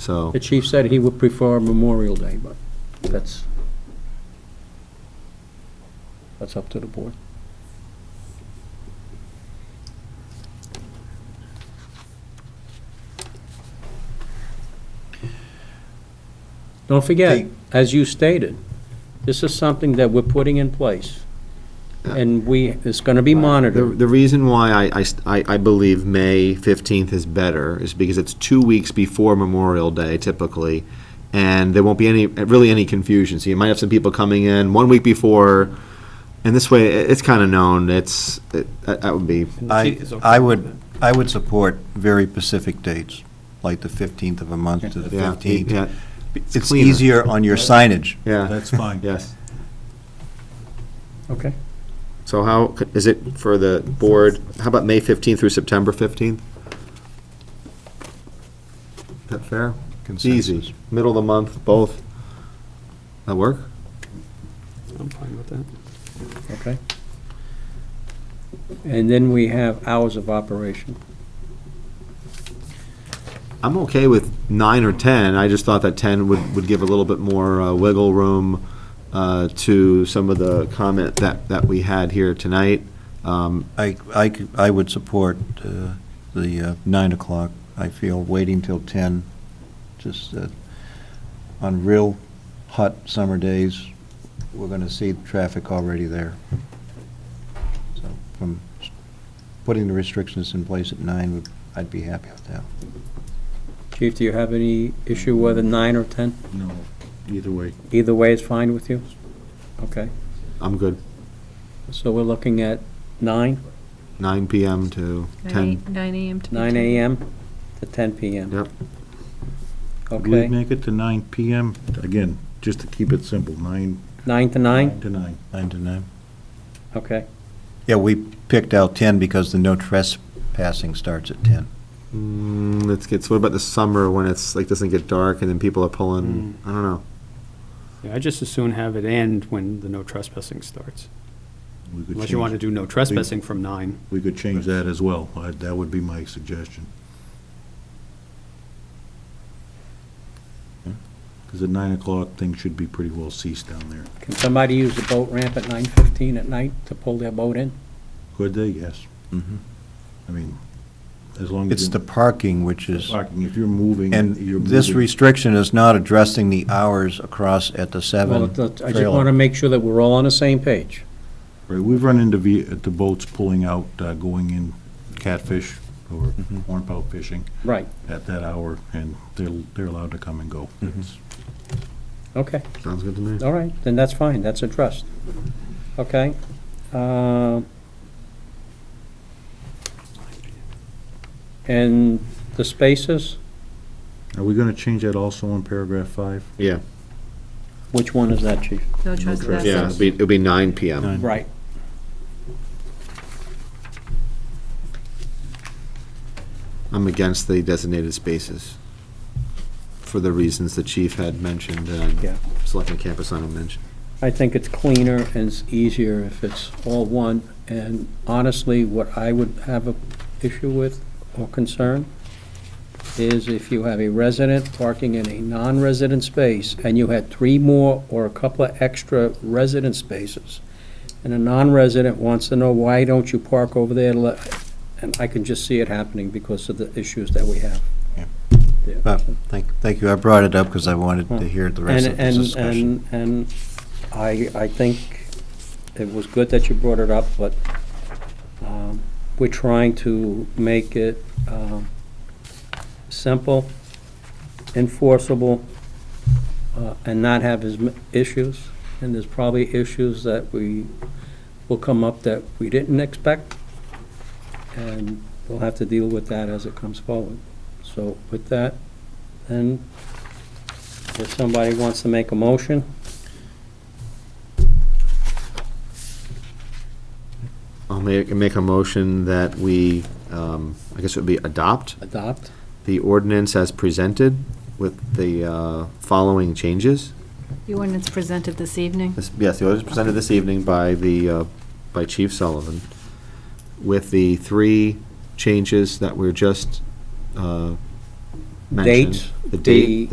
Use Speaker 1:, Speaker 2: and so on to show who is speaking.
Speaker 1: So,
Speaker 2: The chief said he would prefer Memorial Day, but that's, that's up to the board. Don't forget,
Speaker 1: Hey.
Speaker 2: as you stated, this is something that we're putting in place, and we, it's gonna be
Speaker 1: the,
Speaker 2: monitored.
Speaker 1: the reason why I- I, st- I, I believe May 15th is better is because it's two weeks before Memorial Day typically, and there won't be any, really any confusion. So you might have some people coming in one week before, and this way, it- it's kind of known, it's, it- that that would be,
Speaker 3: I, I would, I would support very specific dates, like the 15th of a month to the
Speaker 1: yeah, yeah,
Speaker 3: 15th. It's
Speaker 1: cleaner.
Speaker 3: easier on your signage.
Speaker 1: yeah,
Speaker 4: That's fine.
Speaker 1: yes.
Speaker 2: Okay.
Speaker 1: So how, c- is it for the board, how about May 15th through September 15th? Is that fair? It's
Speaker 3: Consensus.
Speaker 1: easy, middle of the month, both. That work?
Speaker 5: I'm fine with that.
Speaker 2: Okay. And then we have hours of operation.
Speaker 1: I'm okay with nine or 10, I just thought that 10 would, would give a little bit more uh, wiggle room uh, to some of the comment that, that we had here tonight. Um,
Speaker 3: I, I, c- I would support uh, the uh, 9 o'clock. I feel waiting till 10, just uh, on real hot summer days, we're going to see traffic already there. So From s- putting the restrictions in place at 9, would- I'd be happy with that.
Speaker 2: Chief, do you have any issue whether nine or 10?
Speaker 4: No.
Speaker 1: Either way.
Speaker 2: Either way is fine with you? Okay,
Speaker 1: I'm good,
Speaker 2: so we're looking at nine,
Speaker 1: Nine PM to 10.
Speaker 6: Nine AM to.
Speaker 2: nine AM to ten PM?
Speaker 1: Yep.
Speaker 4: We
Speaker 2: Okay,
Speaker 4: make it to nine PM, again, just to keep it simple, nine
Speaker 2: nine to
Speaker 4: nine
Speaker 2: nine?
Speaker 4: to nine.
Speaker 3: 9 to 9.
Speaker 2: Okay,
Speaker 3: Yeah, we picked out 10 because the no trespassing starts at 10.
Speaker 4: Mm-hmm.
Speaker 1: Mm, Let's get, so what about the summer when it's, like, doesn't get dark and then people are pulling, I don't know.
Speaker 5: Yeah, I just as soon have it end when the no trespassing starts.
Speaker 4: We could
Speaker 5: Unless you
Speaker 4: change-
Speaker 5: want to do no trespassing from nine.
Speaker 4: We could change that as well. I- That would be my suggestion. Because at nine o'clock, things should be pretty well ceased down there.
Speaker 2: can somebody use the boat ramp at nine fifteen at night to pull their boat in?
Speaker 4: Could they? Yes.
Speaker 2: Mm-hmm.
Speaker 4: I mean, as long as.
Speaker 3: It's the parking which is,
Speaker 4: Parking, if you're moving.
Speaker 3: and
Speaker 4: you're
Speaker 3: this
Speaker 4: moving-
Speaker 3: restriction is not addressing the hours across at the
Speaker 2: Well,
Speaker 3: 7
Speaker 2: I just want to
Speaker 3: trailer.
Speaker 2: make sure that we're all on the same page.
Speaker 4: Right, we've run into ve- the boats pulling out, uh, going in catfish or hornpout fishing
Speaker 2: Right,
Speaker 4: at that hour, and they're, they're allowed to come and go. It's-
Speaker 2: okay.
Speaker 1: Sounds good to me.
Speaker 2: All right, then that's fine, that's addressed. Okay? um, And the spaces,
Speaker 4: Are we gonna change that also in paragraph five?
Speaker 1: Yeah,
Speaker 2: which one is that, chief?
Speaker 6: No
Speaker 1: yeah, it'll
Speaker 6: trespassing.
Speaker 1: be, it'll be nine PM.
Speaker 4: Nine.
Speaker 2: Right.
Speaker 1: I'm against the designated spaces for the reasons the chief had mentioned
Speaker 2: Yeah.
Speaker 1: and Selectman Campusano mentioned.
Speaker 2: I think it's cleaner and it's easier if it's all one. And honestly, what I would have a issue with or concern is if you have a resident parking in a non-resident space and you had three more or a couple of extra resident spaces, and a non-resident wants to know, why don't you park over there? to let-" And I can just see it happening because of the issues that we have.
Speaker 3: Yeah.
Speaker 2: Yeah.
Speaker 3: But, thank, thank you, I brought it up because I wanted to hear the rest of
Speaker 2: And,
Speaker 3: this
Speaker 2: and,
Speaker 3: discussion.
Speaker 2: and, and I, I think it was good that you brought it up, but, um, we're trying to make it, um, simple, enforceable, uh, and not have as m- issues. And there's probably issues that we, will come up that we didn't expect, and we'll have to deal with that as it comes forward. So with that, then if somebody wants to make a motion,
Speaker 1: I'll make, make a motion that we, um, I guess it would be adopt
Speaker 2: adopt.
Speaker 1: the ordinance as presented with the, uh, following changes.
Speaker 6: The ordinance presented this evening.
Speaker 1: This- Yes, the ordinance presented this evening by the, uh, by Chief Sullivan with the three changes that were just, uh, mentioned.
Speaker 2: Date,
Speaker 1: The date,
Speaker 2: the-